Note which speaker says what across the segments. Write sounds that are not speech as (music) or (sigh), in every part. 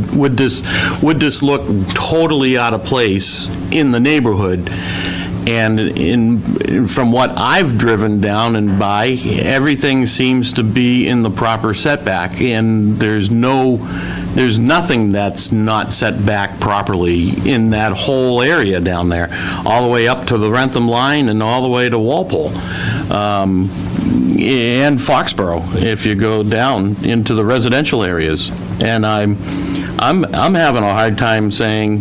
Speaker 1: would this, would this look totally out of place in the neighborhood? And in, from what I've driven down and by, everything seems to be in the proper setback, and there's no, there's nothing that's not set back properly in that whole area down there, all the way up to the Rentham line and all the way to Walpole. Um, and Foxborough, if you go down into the residential areas. And I'm, I'm, I'm having a hard time saying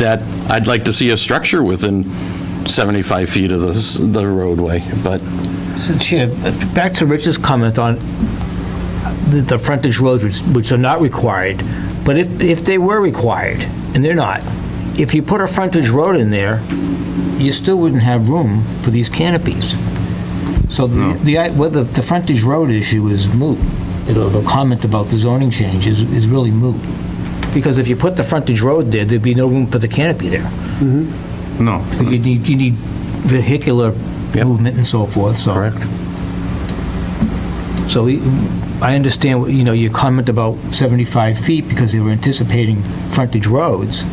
Speaker 1: that I'd like to see a structure within 75 feet of the, s- the roadway, but
Speaker 2: Chair, back to Rich's comment on the, the frontage roads, which, which are not required, but if, if they were required, and they're not, if you put a frontage road in there, you still wouldn't have room for these canopies. So the, the, i- whether the frontage road issue is moot, the, the comment about the zoning change is, is really moot. Because if you put the frontage road there, there'd be no room for the canopy there.
Speaker 3: No.
Speaker 2: You need, you need vehicular movement and so forth, so. Correct. So we- I understand, you know, your comment about 75 feet because they were anticipating frontage roads,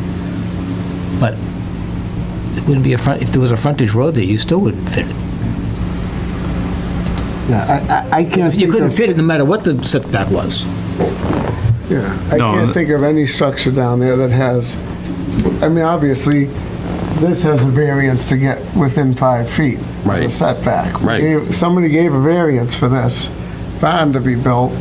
Speaker 2: but it wouldn't be a front, if there was a frontage road there, you still wouldn't fit it.
Speaker 4: Yeah, I- I, I can't
Speaker 2: You
Speaker 4: think
Speaker 2: couldn't
Speaker 4: of,
Speaker 2: fit it no matter what the setback was.
Speaker 4: yeah, I
Speaker 3: No,
Speaker 4: can't
Speaker 3: th-
Speaker 4: think of any structure down there that has, I mean, obviously, this has a variance to get within five feet. of the
Speaker 1: Right.
Speaker 4: Setback. We
Speaker 1: Right.
Speaker 4: gave- Somebody gave a variance for this barn to be built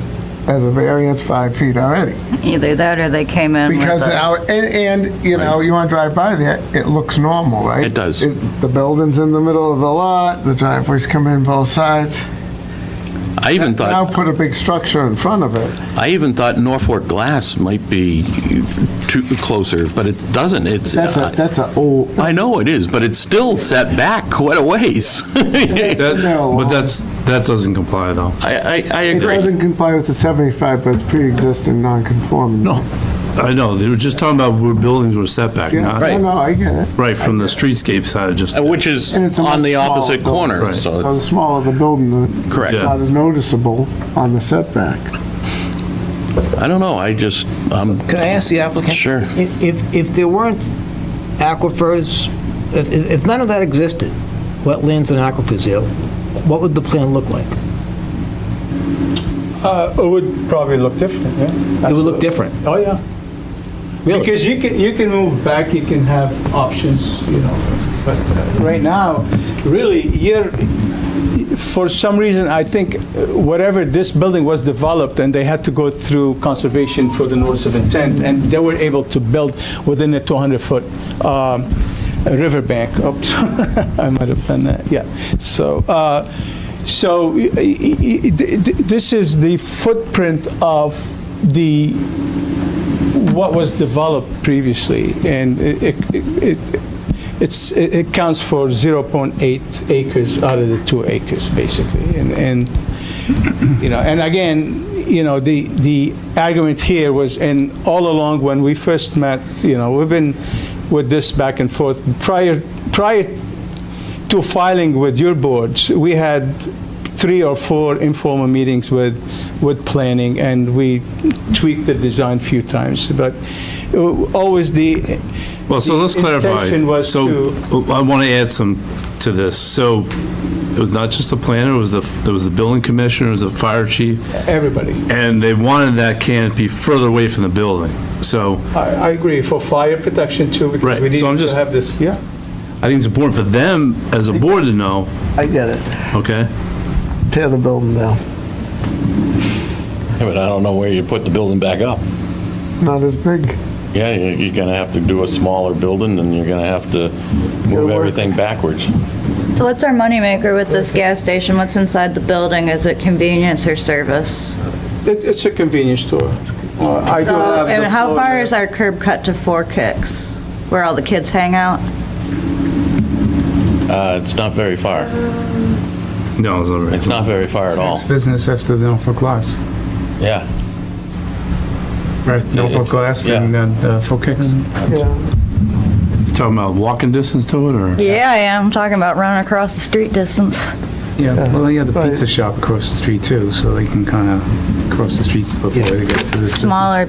Speaker 4: as a variance five feet already.
Speaker 5: Either that or they came in with
Speaker 4: Because,
Speaker 5: a-
Speaker 4: our- and, and, you know, you want to drive by there, it looks normal, right?
Speaker 1: It does.
Speaker 4: The building's in the middle of the lot, the driveways come in both sides.
Speaker 1: I even thought.
Speaker 4: Now put a big structure in front of it.
Speaker 1: I even thought Norfolk Glass might be too, closer, but it doesn't. It's.
Speaker 4: That's a, that's a old,
Speaker 1: I know it is, but it's still set back quite a ways. I,
Speaker 3: That-
Speaker 4: No.
Speaker 3: But that's, that doesn't comply, though.
Speaker 1: (laughs) I, I
Speaker 4: It
Speaker 1: agree.
Speaker 4: doesn't comply with the 75, but it's pre-existing non-conforming.
Speaker 3: I know, they were just talking about where buildings were setback,
Speaker 4: Yeah,
Speaker 3: not,
Speaker 4: no, no, I get it.
Speaker 3: right, from the streetscape side, just,
Speaker 1: Uh, Which is
Speaker 4: And it's a
Speaker 1: on the
Speaker 4: much smaller
Speaker 1: opposite
Speaker 4: building.
Speaker 1: corner,
Speaker 3: Right.
Speaker 1: so
Speaker 4: So the
Speaker 1: it's.
Speaker 4: smaller the building, the.
Speaker 1: Correct.
Speaker 4: it's Not as noticeable on the setback.
Speaker 1: I don't know, I just, (laughs) I'm
Speaker 2: Can I ask the applicant?
Speaker 1: Sure.
Speaker 2: If, if- if there weren't aquifers, if, if if none of that existed, wetlands and aquifers there, what would the plan look like?
Speaker 6: Uh, It would probably look different, yeah.
Speaker 2: It would look different.
Speaker 6: Oh, yeah.
Speaker 2: Really?
Speaker 6: Because you can, you can move back, you can have options, you know, but uh, right now, really, you're, for some reason, I think uh, whatever this building was developed and they had to go through conservation for the notice of intent and they were able to build within a 200-foot um, riverbank. Oops, (laughs) I might have done that, yeah. So, uh, so y- y- y- y- th- th- this is the footprint of the what was developed previously, and it, it- it, it's, it it counts for 0.8 acres out of the two acres, basically. And, and, you know, and again, you know, the, the argument here was, and all along when we first met, you know, we've been with this back and forth. Prior, prior to filing with your boards, we had three or four informal meetings with, with planning, and we tweaked the design a few times, but uh, always the,
Speaker 3: well, so let's
Speaker 6: the
Speaker 3: clarify.
Speaker 6: intention was
Speaker 3: So, I want to add some to this. So, it was not just the planner, it was the, it was the building commissioner, it was the fire chief,
Speaker 6: everybody.
Speaker 3: and they wanted that canopy further away from the building. So,
Speaker 6: I, I agree, for fire protection too, because
Speaker 3: Right,
Speaker 6: we need
Speaker 3: so I'm
Speaker 6: to
Speaker 3: just-
Speaker 6: have this, yeah.
Speaker 3: I think it's important for them, as a board, to know,
Speaker 4: I get it.
Speaker 3: okay?
Speaker 4: Tear the building down.
Speaker 1: But I don't know where you put the building back up.
Speaker 4: Not as big.
Speaker 1: Yeah, you- you're going to have to do a smaller building, and you're going to have to move
Speaker 4: work.
Speaker 1: everything backwards.
Speaker 5: So what's our moneymaker with this gas station? What's inside the building? Is it convenience or service?
Speaker 6: It, it's a convenience store. Uh, I do
Speaker 5: So,
Speaker 6: have the
Speaker 5: and how
Speaker 6: floor
Speaker 5: far
Speaker 6: there.
Speaker 5: is our curb cut to Four Kicks, where all the kids hang out?
Speaker 1: Uh, It's not very far.
Speaker 3: No, it's all right.
Speaker 1: It's not very far at all.
Speaker 7: business after the Norfolk Glass,
Speaker 1: Yeah.
Speaker 7: right? Norfolk Glass
Speaker 1: yeah.
Speaker 7: and then the Four Kicks.
Speaker 3: Talking about walking distance to it, or?
Speaker 5: Yeah, I am talking about running across the street distance.
Speaker 7: Yeah, well, they have the
Speaker 4: Right.
Speaker 7: pizza shop across the street too, so they can kind of cross the street before they get to this.
Speaker 5: Smaller